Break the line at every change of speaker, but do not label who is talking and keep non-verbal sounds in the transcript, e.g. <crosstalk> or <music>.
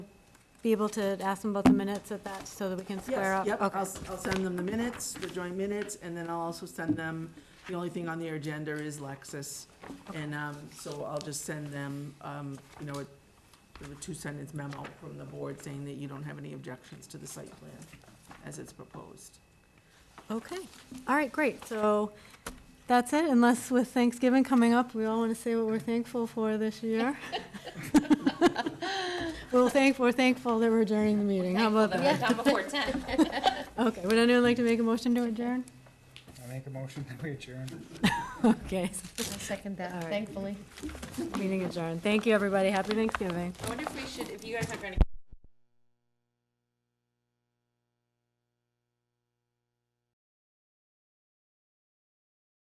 be able to ask them about the minutes at that, so that we can square
Yes,
up?
yep, I'll,
Okay.
s- I'll send them the minutes, the joint minutes, and then I'll also send them, the only thing on their agenda is Lexus. And, um, so I'll just send them, um, you know, a, a two-sentence memo from the board saying that you don't have any objections to the site plan as it's proposed.
Okay, all right, great, so that's it, unless with Thanksgiving coming up, we all want to say what we're thankful for this year. <laughs> We're thank, we're thankful that we're adjourning the meeting, how about
Thankful
that?
that we're done before ten.
Okay, would anyone like to make a motion to adjourn? <laughs>
I make a motion <laughs> that we adjourn.
Okay,
I <laughs> second
All
that,
right.
thankfully.
meeting adjourned, thank you, everybody, happy Thanksgiving.
I wonder if we should, if you guys aren't going to